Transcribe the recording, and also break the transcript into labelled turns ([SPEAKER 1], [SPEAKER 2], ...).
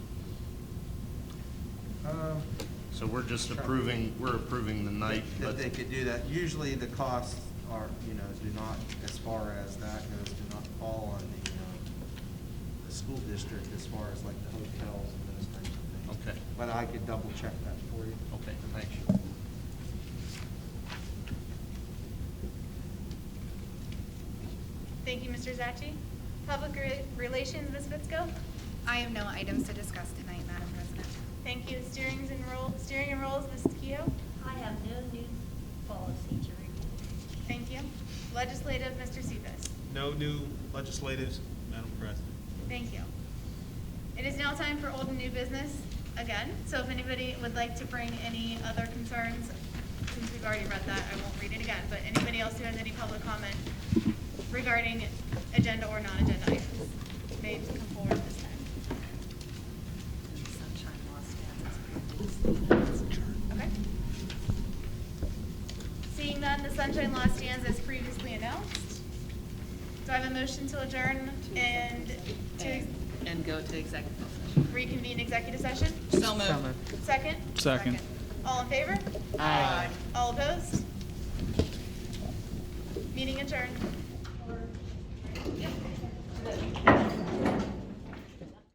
[SPEAKER 1] Um,
[SPEAKER 2] So we're just approving, we're approving the night,
[SPEAKER 1] That
[SPEAKER 2] but
[SPEAKER 1] they could do that. Usually the costs are, you know, do not, as far as that goes, do not fall on the, um, the school district as far as like the hotels and those types of things.
[SPEAKER 2] Okay.
[SPEAKER 1] But I could double check that for you.
[SPEAKER 2] Okay, thank you.
[SPEAKER 3] Thank you, Mr. Zachi. Public Re- Relations, Ms. Fitzko?
[SPEAKER 4] I have no items to discuss tonight, Madam President.
[SPEAKER 3] Thank you. Steerings and roll, steering and rolls, Ms. Keough?
[SPEAKER 5] I have no new policy to report.
[SPEAKER 3] Thank you. Legislative, Mr. Cephas?
[SPEAKER 6] No new legislatives, Madam President.
[SPEAKER 3] Thank you. It is now time for old and new business again, so if anybody would like to bring any other concerns, since we've already read that, I won't read it again, but anybody else who has any public comment regarding agenda or non-agenda items, may come forward this time.
[SPEAKER 4] Sunshine
[SPEAKER 3] Okay? Seeing none, the sunshine law stands as previously announced. Do I have a motion to adjourn and to
[SPEAKER 7] And go to executive session.
[SPEAKER 3] reconvene executive session?
[SPEAKER 7] So moved.
[SPEAKER 3] Second?
[SPEAKER 8] Second.
[SPEAKER 3] All in favor? Aye. All opposed? Meeting adjourned.